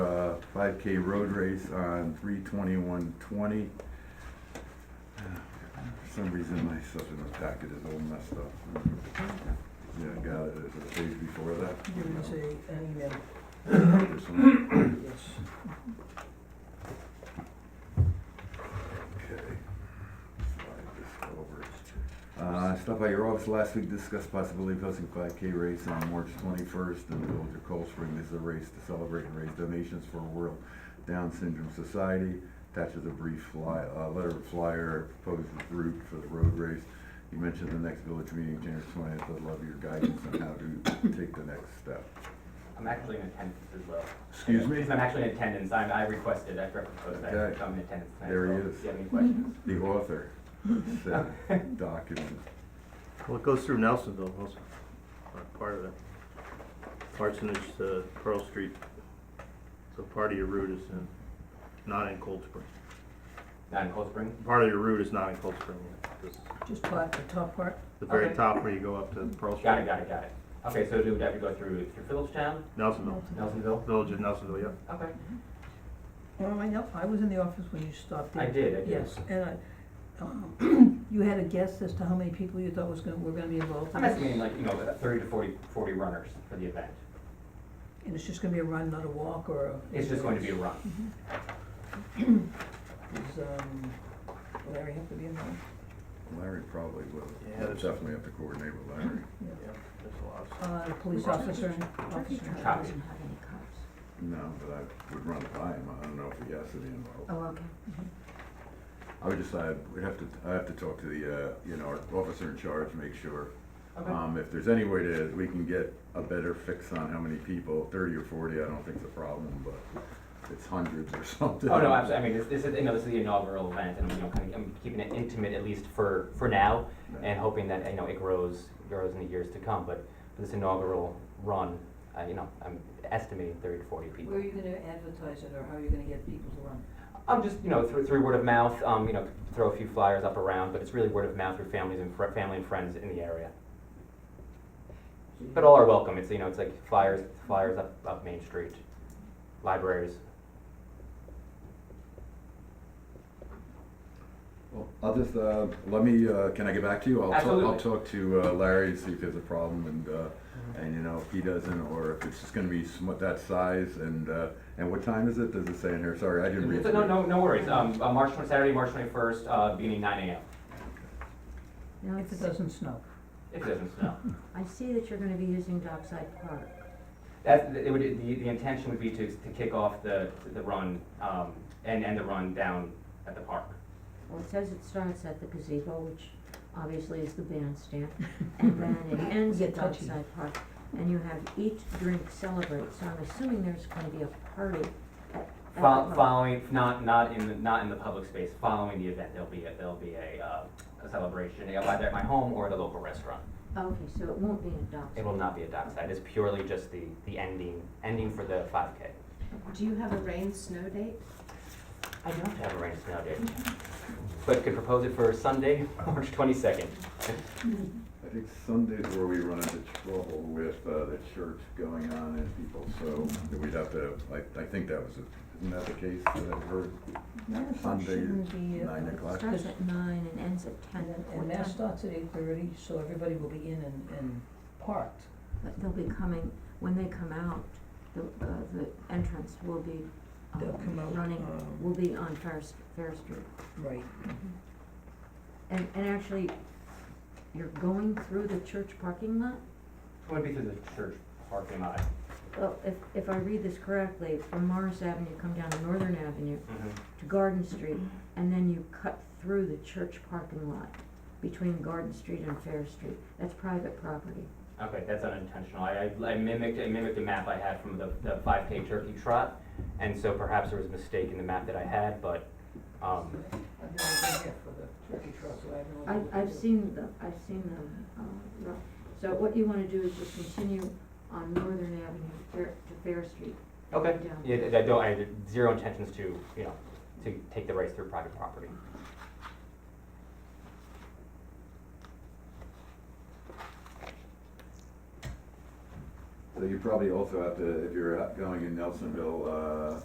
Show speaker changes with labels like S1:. S1: Uh, five K road race on three twenty-one twenty. For some reason, my stuff in the packet is all messed up. Yeah, I got it, it's a page before that.
S2: There is a, an email,
S1: This one.
S2: yes.
S1: Okay. Slide this over. Uh, Stop by your office last week, discussed possibility of hosting five K race on March twenty-first in the village of Cold Spring. This is a race to celebrate and raise donations for World Down Syndrome Society. Attaches a brief fly, uh, letter of flyer, proposed route for the road race. You mentioned the next village meeting, January twentieth. I'd love your guidance on how to take the next step.
S3: I'm actually in attendance as well.
S1: Excuse me?
S3: I'm actually in attendance, I'm, I requested, I proposed that,
S1: Okay.
S3: so I'm in attendance tonight. as
S1: There he
S3: well.
S1: is.
S3: Do you have any questions?
S1: The author said document.
S4: Well, it goes through Nelsonville also, uh, part of it. Parsonage to Pearl Street, so part of your route is in, not in Cold Spring.
S3: Not in Cold Spring?
S4: Part of your route is not in Cold Spring, it's
S2: Just part, the top part,
S4: the very
S3: Okay.
S4: top where you go up to Pearl Street.
S3: Got it, got it, got it. Okay, so do we have to go through, through Phillipstown,
S4: Nelsonville,
S3: Nelsonville?
S4: Village of Nelsonville, yep.
S3: Okay,
S2: oh, I know, I was in the office when you stopped in.
S3: I did, I did.
S2: Yes, and I, um, you had a guess as to how many people you thought was gonna, were gonna be involved in
S3: I'm
S2: this?
S3: estimating like, you know, about thirty to 40 40 runners for the event.
S2: And it's just gonna be a run, not a walk, or a?
S3: It's just going to be a run.
S2: Is, um, Larry have to be involved?
S1: Larry probably will.
S4: Yeah,
S1: We'll
S4: there's-
S1: Definitely have to coordinate with Larry.
S2: Yeah.
S4: Yep, there's a lot of stuff.
S2: Uh, the police
S5: Well,
S2: officer, and
S5: Turkey
S2: officer.
S5: Trot
S3: Copy.
S5: doesn't have any cops.
S1: No, but I would run it by him, I don't know if he has to be involved.
S5: Oh, okay. Mm-hmm.
S1: I would decide, we'd have to, I have to talk to the, uh, you know, our officer in charge, make sure.
S3: Okay.
S1: Um, if there's any way to, we can get a better fix on how many people, thirty or forty, I don't think's a problem, but it's hundreds or something.
S3: Oh, no, absolutely, I mean, this, this is, you know, this is the inaugural event, and, you know, kind of, I'm keeping it intimate at least for, for now, and hoping that, you know, it grows, grows in the years to come, but for this inaugural run, uh, you know, I'm estimating thirty to forty people.
S2: Where are you gonna advertise it, or how are you gonna get people to run?
S3: I'm just, you know, through, through word of mouth, um, you know, throw a few flyers up around, but it's really word of mouth through families and fr- family and friends in the area. But all are welcome. It's you know, it's like flyers, flyers up, up Main Street, libraries.
S1: Well, I'll just, uh, let me, uh, can I get back to you? I'll talk- I'll
S3: Absolutely.
S1: talk to uh, Larry, see if there's a problem, and, uh, and, you know, if he doesn't, or if it's just gonna be sm- that size, and, uh, and what time is it, does it say in here? Sorry, I didn't read.
S3: So no,
S1: through.
S3: no, no worries. Um, uh, March twenty Saturday, March twenty first, uh, beginning nine a.m.
S5: Now,
S2: If it
S5: it's-
S2: doesn't snow.
S3: If it doesn't snow,
S5: I see that you're gonna be using Dockside Park.
S3: that it would the, the intention would be to, to kick off the the run um, and and the run down at the park.
S5: Well, it says it starts at the gazebo, which obviously is the bandstand, and then it ends at
S2: Get touchy.
S5: Dockside Park. And you have eat, drink, celebrate, so I'm assuming there's gonna be a party at, at the
S3: Fol-
S5: park.
S3: Following, not, not in, the not in the public space, following the event, there'll be, a there'll be a, uh, a celebration, you know, either at my home or at a local restaurant.
S5: Okay, so it won't be in Dockside.
S3: It will not be a dockside, it's purely just the, the ending, ending for the five K.
S6: Do you have a rain snow date?
S3: I don't have a rain snow date, but could propose it for Sunday, March twenty-second.
S2: Hmm.
S1: I think Sundays where we run into trouble with uh, the church going on and people, so we'd have to, I, I think that was, a- isn't that the case that I've heard?
S2: Nine o'clock
S1: Sunday,
S2: shouldn't be, uh,
S1: nine o'clock.
S5: Starts at nine and ends at ten.
S2: And then,
S5: What
S2: and that
S5: time?
S2: starts at eight thirty, so everybody will be in and, and parked.
S5: But they'll be coming, when they come out, the, uh, the entrance will be,
S2: They'll come
S5: um,
S2: out,
S5: running,
S2: um,
S5: will be on Fair, St- Fair Street.
S2: Right.
S5: And, and actually, you're going through the church parking lot?
S3: Would be through the church parking lot.
S5: Well, if, if I read this correctly, from Morris Avenue, you come down to Northern Avenue
S3: Mhm.
S5: to Garden Street, and then you cut through the church parking lot between Garden Street and Fair Street. That's private property.
S3: Okay, that's unintentional. I, I I mimicked, I mimicked a map I had from the, the five K turkey trot, and so perhaps there was a mistake in the map that I had, but, um,
S2: I've never been here for the turkey trot, so I have no
S5: I,
S2: idea what
S5: I've
S2: to do.
S5: seen the, I've seen the, um, ro- so what you wanna do is just continue on Northern Avenue Fair, to Fair Street.
S3: Okay,
S5: Yeah.
S3: yeah, I- I don't, I had zero intentions to, you know, to take the rights through private property.
S1: So you probably also have to, if you're out going in Nelsonville, uh,